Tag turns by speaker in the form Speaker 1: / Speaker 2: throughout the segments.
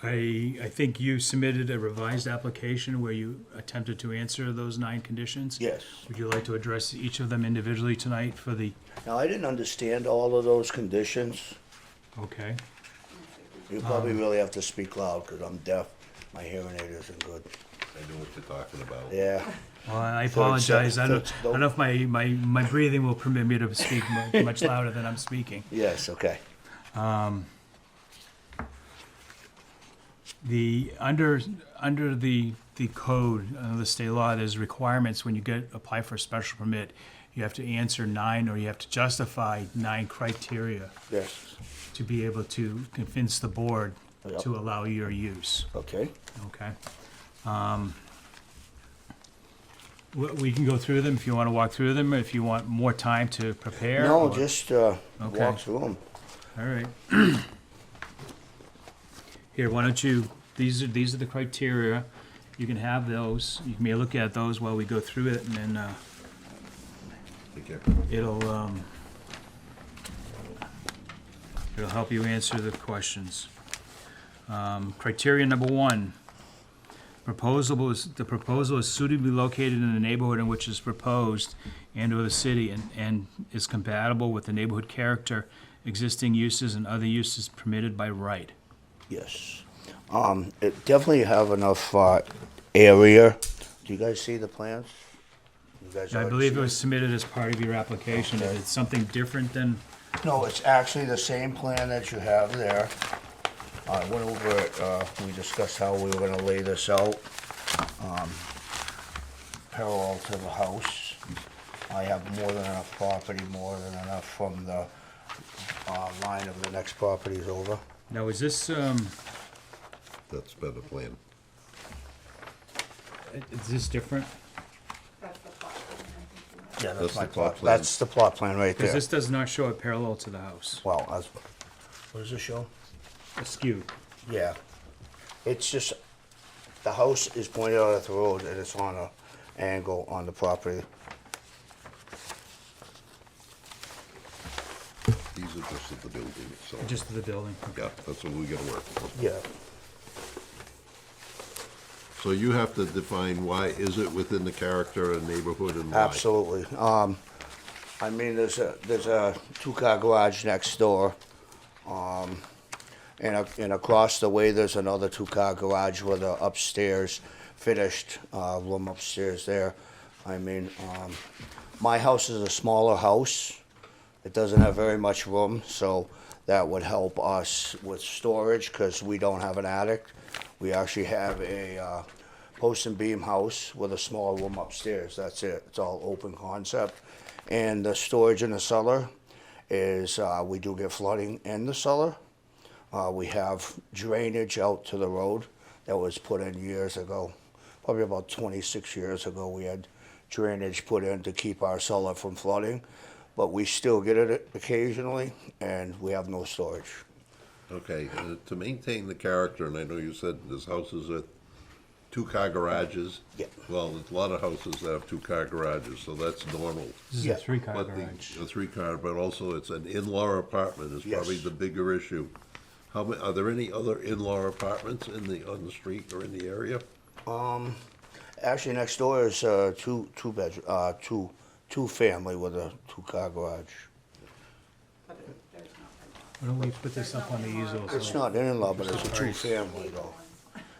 Speaker 1: I, I think you submitted a revised application where you attempted to answer those nine conditions.
Speaker 2: Yes.
Speaker 1: Would you like to address each of them individually tonight for the,
Speaker 2: Now, I didn't understand all of those conditions.
Speaker 1: okay?
Speaker 2: You probably really have to speak loud because I'm deaf. My hearing aid isn't good.
Speaker 3: I know what you're talking about.
Speaker 2: Yeah.
Speaker 1: Well, I
Speaker 2: So it's, uh,
Speaker 1: apologize. I don't,
Speaker 2: that's-
Speaker 1: I don't know if my, my, my breathing will permit me to speak mu- much louder than I'm speaking.
Speaker 2: Yes, okay.
Speaker 1: The, under, under the, the code, uh, the state law, there's requirements when you get, apply for a special permit. You have to answer nine, or you have to justify nine criteria
Speaker 2: Yes.
Speaker 1: to be able to convince the board
Speaker 2: Yep.
Speaker 1: to allow your use,
Speaker 2: Okay.
Speaker 1: okay? Um, We, we can go through them if you wanna walk through them, if you want more time to prepare.
Speaker 2: No,
Speaker 1: or-
Speaker 2: just uh,
Speaker 1: Okay.
Speaker 2: walk through them.
Speaker 1: All right. Here, why don't you, these are, these are the criteria. You can have those. You may look at those while we go through it and then, uh,
Speaker 3: Okay.
Speaker 1: it'll, um, it'll help you answer the questions. Um, criteria number one, proposal is, the proposal is suitably located in the neighborhood in which is proposed and/or the city and, and is compatible with the neighborhood character, existing uses and other uses permitted by right.
Speaker 2: Yes. Um, it definitely have enough uh, area. Do you guys see the plans? You guys
Speaker 1: I
Speaker 2: already
Speaker 1: believe
Speaker 2: see
Speaker 1: it was submitted as part of your application. If it's something different than,
Speaker 2: No, it's actually the same plan that you have there. I went over it, uh, we discussed how we were gonna lay this out, um, parallel to the house. I have more than enough property, more than enough from the, uh, line of the next properties over.
Speaker 1: now is this, um,
Speaker 3: That's better plan.
Speaker 1: is this different?
Speaker 4: That's the plot line, I think you have.
Speaker 2: Yeah,
Speaker 3: That's
Speaker 2: that's my
Speaker 3: the plot
Speaker 2: plot,
Speaker 3: plan.
Speaker 2: that's the plot plan right
Speaker 1: Because
Speaker 2: there.
Speaker 1: this does not show it parallel to the house,
Speaker 2: Well, that's, what does it show?
Speaker 1: askew.
Speaker 2: Yeah. It's just, the house is pointed out at the road and it's on a angle on the property.
Speaker 3: These are just at the building, so.
Speaker 1: Just the building.
Speaker 3: Yeah, that's what we gotta work with.
Speaker 2: Yeah.
Speaker 3: So you have to define why is it within the character and neighborhood and why?
Speaker 2: Absolutely. Um, I mean, there's a, there's a two-car garage next door. Um, and, a- and across the way, there's another two-car garage with a upstairs, finished, uh, room upstairs there. I mean, um, my house is a smaller house. It doesn't have very much room, so that would help us with storage, because we don't have an attic. We actually have a uh, post and beam house with a small room upstairs, that's it, it's all open concept. And the storage in the cellar is, uh, we do get flooding in the cellar. Uh, We have drainage out to the road that was put in years ago, probably about 26 years ago. We had drainage put in to keep our cellar from flooding, but we still get it occasionally, and we have no storage.
Speaker 3: Okay, uh, to maintain the character, and I know you said this house is a two-car garages.
Speaker 2: Yeah.
Speaker 3: Well, there's a lot of houses that have two-car garages, so that's normal.
Speaker 1: This is a
Speaker 2: Yeah,
Speaker 1: three-car
Speaker 3: But the,
Speaker 1: garage.
Speaker 3: a three-car, but also it's an in-law apartment is probably
Speaker 2: Yes.
Speaker 3: the bigger issue. How, ma- are there any other in-law apartments in the, on the street or in the area?
Speaker 2: Actually, next door is uh, two, two bedroom, uh, two, two family with a two-car garage.
Speaker 4: But it- there's not.
Speaker 1: Why don't we put this up on the easel? so-
Speaker 2: It's not an in-law, but it's a
Speaker 1: Sorry.
Speaker 2: two-family though.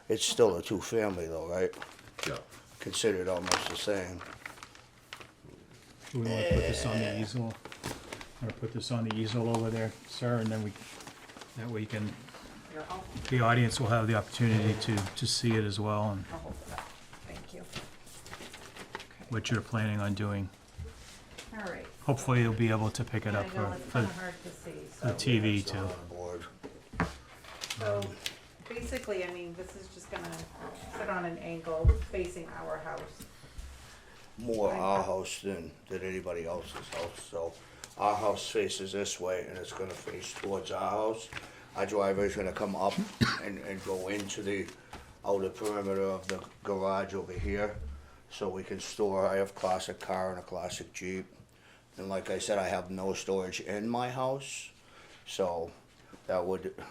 Speaker 2: It's still a two-family though, right?
Speaker 3: Yeah.
Speaker 2: Considered almost the same.
Speaker 1: Do we want to put this on the easel? Or put this on the easel over there, sir, and then we, that way you can,
Speaker 4: You're all,
Speaker 1: the audience will have the opportunity to, to see it as well and
Speaker 4: I'll hold it up. Thank you. Okay.
Speaker 1: what you're planning on doing.
Speaker 4: All right.
Speaker 1: Hopefully you'll be able to pick it
Speaker 4: I
Speaker 1: up for,
Speaker 4: know it's
Speaker 1: for
Speaker 4: kind of hard to see,
Speaker 1: the
Speaker 4: so.
Speaker 1: TV
Speaker 2: It's not
Speaker 1: too.
Speaker 2: on the board.
Speaker 4: So basically, I mean, this is just gonna sit on an angle facing our house.
Speaker 2: more our house than, than anybody else's house, so our house faces this way and it's gonna face towards our house. Our driveway's gonna come up and, and go into the outer perimeter of the garage over here, so we can store, I have classic car and a classic Jeep. And like I said, I have no storage in my house, so that would